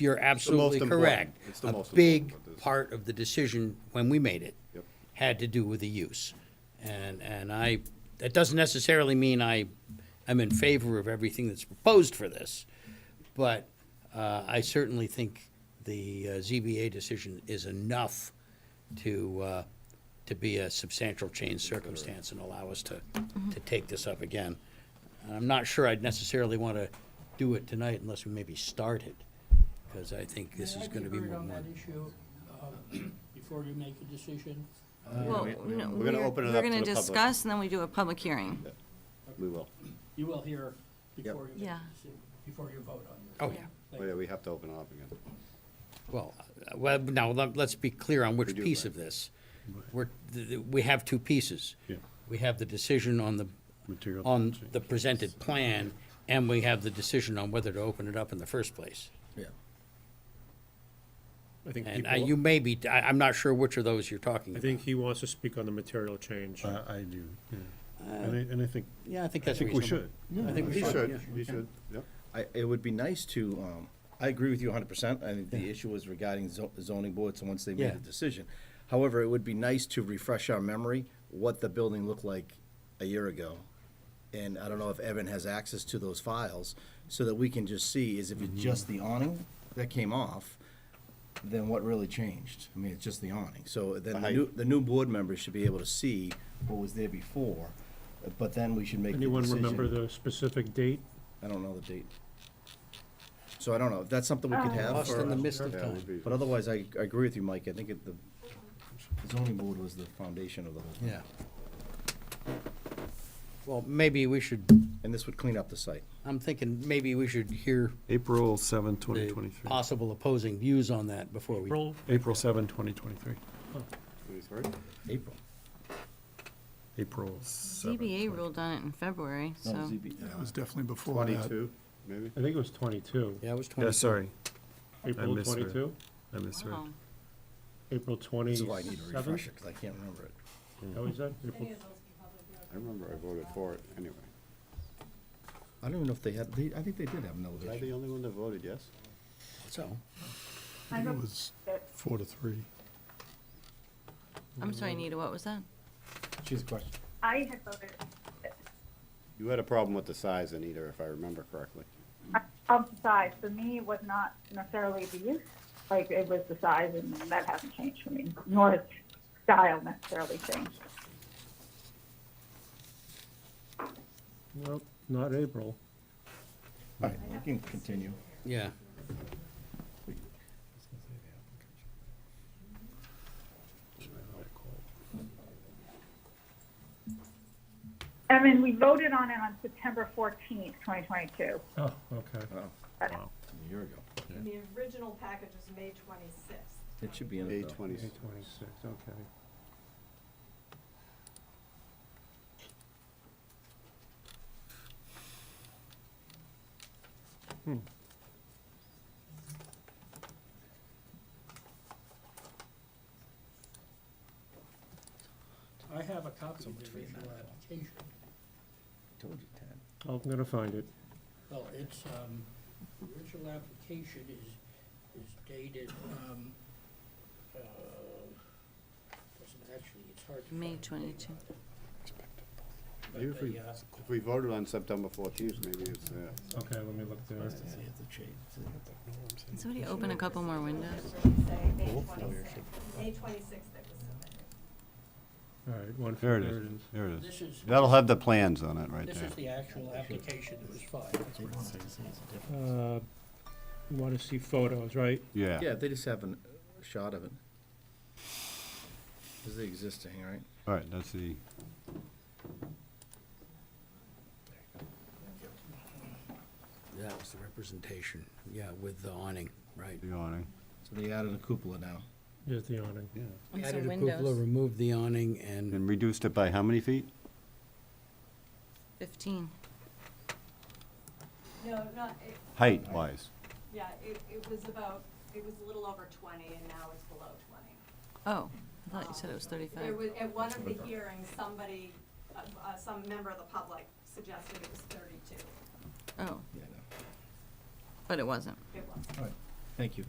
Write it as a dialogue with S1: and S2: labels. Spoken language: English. S1: you're absolutely
S2: important.
S1: correct.
S2: It's the most
S1: A big
S2: important, but this-
S1: part of the decision when we made it
S2: Yep.
S1: had to do with the use. And, and I, that doesn't necessarily mean I am in favor of everything that's proposed for this, but uh, I certainly think the uh, ZBA decision is enough to, uh, to be a substantial change circumstance and allow us to, to take this up again. And I'm not sure I'd necessarily want to do it tonight unless we maybe start it, because I think this
S3: May I
S1: is going to be
S3: heard
S1: more.
S3: on that
S1: more-
S3: issue, um, before you make a decision?
S4: Well,
S2: we- we-
S4: no,
S2: we're gonna
S4: we're-
S2: open it
S4: we're
S2: up to
S4: gonna
S2: the public.
S4: discuss, and then we do a public hearing.
S2: We will.
S3: You will hear before you make a
S4: Yeah.
S3: decision, before you vote on it.
S1: Oh, yeah.
S2: Oh, yeah, we have to open it up again.
S1: Well, uh, well, now, let- let's be clear on
S2: We
S1: which
S2: do,
S1: piece
S2: right.
S1: of this. We're, th- th- we have two pieces.
S5: Yeah.
S1: We have the decision on the,
S5: Material
S1: on
S5: change.
S1: the presented plan, and we have the decision on whether to open it up in the first place.
S6: Yeah. I think
S1: And
S6: people,
S1: uh, you may be, I, I'm not sure which of those you're talking
S6: I
S1: about.
S6: think he wants to speak on the material change.
S5: I, I do, yeah. And I, and I think,
S1: Yeah, I think
S5: I
S1: that's
S5: think we
S1: reasonable.
S5: should.
S1: I think we
S2: You
S1: should, yeah.
S2: should, you should, yep.
S7: I, it would be nice to, um, I agree with you hundred percent, I think the issue was regarding zo- zoning boards, and once they
S1: Yeah.
S7: made the decision. However, it would be nice to refresh our memory, what the building looked like a year ago. And I don't know if Evan has access to those files, so that we can just see, is if it's just the awning that came off, then what really changed? I mean, it's just the awning, so then the
S2: height.
S7: new, the new board members should be able to see what was there before, but then we should make the
S6: Anyone remember
S7: decision.
S6: the specific date?
S7: I don't know the date. So I don't know, if that's something we could have,
S1: Ah, Lost in the
S7: or,
S1: mist of
S2: Yeah, it would
S1: time.
S2: be-
S7: but otherwise, I, I agree with you, Mike, I think it, the zoning board was the foundation of the whole thing.
S1: Yeah. Well, maybe we should,
S7: And this would clean up the site.
S1: I'm thinking maybe we should hear
S5: April 7,
S1: the
S5: 2023.
S1: possible opposing views on that before we.
S6: April?
S5: April 7, 2023.
S2: Twenty-three?
S7: April.
S5: April 7.
S4: ZBA ruled on it in February,
S7: No,
S4: so.
S7: E ZB.
S8: It was definitely before that.
S2: Twenty-two, maybe?
S6: I think it was 22.
S1: Yeah, it was twenty.
S5: Yeah, sorry,
S6: April
S5: misread.
S6: 22?
S5: I misread.
S4: Wow.
S6: April 27?
S7: This is why I need a refresher, because I can't remember it.
S6: Is that what you said? April-
S2: I remember I voted for it anyway.
S7: I don't even know if they had, they, I think they did have an
S2: Was I
S7: elevation.
S2: the only one that voted yes?
S1: So,
S8: I think It was four to three.
S4: I'm sorry, Anita, what was that?
S7: She's a question.
S9: I had voted,
S2: You had a problem with the size, Anita, if I remember correctly.
S9: of the size, for me, it was not necessarily the use, like, it was the size, and that hasn't changed for me, nor has style necessarily changed.
S6: Nope, not April.
S7: All right, we can continue.
S1: yeah.
S9: I mean, we voted on it on September fourteenth, twenty twenty-two.
S6: Oh, okay.
S7: Oh,
S5: Wow.
S7: a year ago.
S10: The original package was May twenty-sixth.
S7: It should be in
S2: A
S7: it, though.
S2: twenty,
S6: May 26, okay.
S3: I have a copy of the original application.
S7: Told you, Ted.
S6: I'm going to find it.
S3: Well, it's, um, the original application is, is dated, um, uh, doesn't actually, it's hard to.
S4: May
S3: find the date
S4: 22.
S3: on it.
S2: Maybe if
S3: But
S2: we-
S3: they, uh,
S2: if we voted on September fourteenth, maybe it's uh, there.
S6: Okay, let me look there.
S4: Can somebody open a couple more windows?
S10: May twenty-sixth that was submitted.
S6: All right, one.
S2: There it is, there it is.
S3: This is,
S2: That'll have the plans on it right
S3: this
S2: there.
S3: is the actual application that was filed.
S6: Uh, You want to see photos, right?
S2: Yeah,
S7: Yeah, they just have an- a shot of it. This is the existing, right?
S2: all right, that's the,
S1: That was the representation, yeah, with the awning, right.
S2: the awning.
S7: So they added a cupola now.
S6: There's the awning.
S2: Yeah.
S4: And
S1: Added
S4: some
S1: a cupola,
S4: windows.
S1: removed the awning, and
S2: And reduced it by how many feet?
S4: Fifteen.
S10: No, not, it,
S2: Height wise.
S10: yeah, it, it was about, it was a little over twenty and now it's below twenty.
S4: Oh, I thought you said it was
S10: There
S4: thirty-five.
S10: was, at one of the hearings, somebody, uh, uh, some member of the public suggested it was thirty-two.
S4: Oh,
S7: Yeah, I know.
S4: but it wasn't.
S10: It was.
S7: All right. Thank you.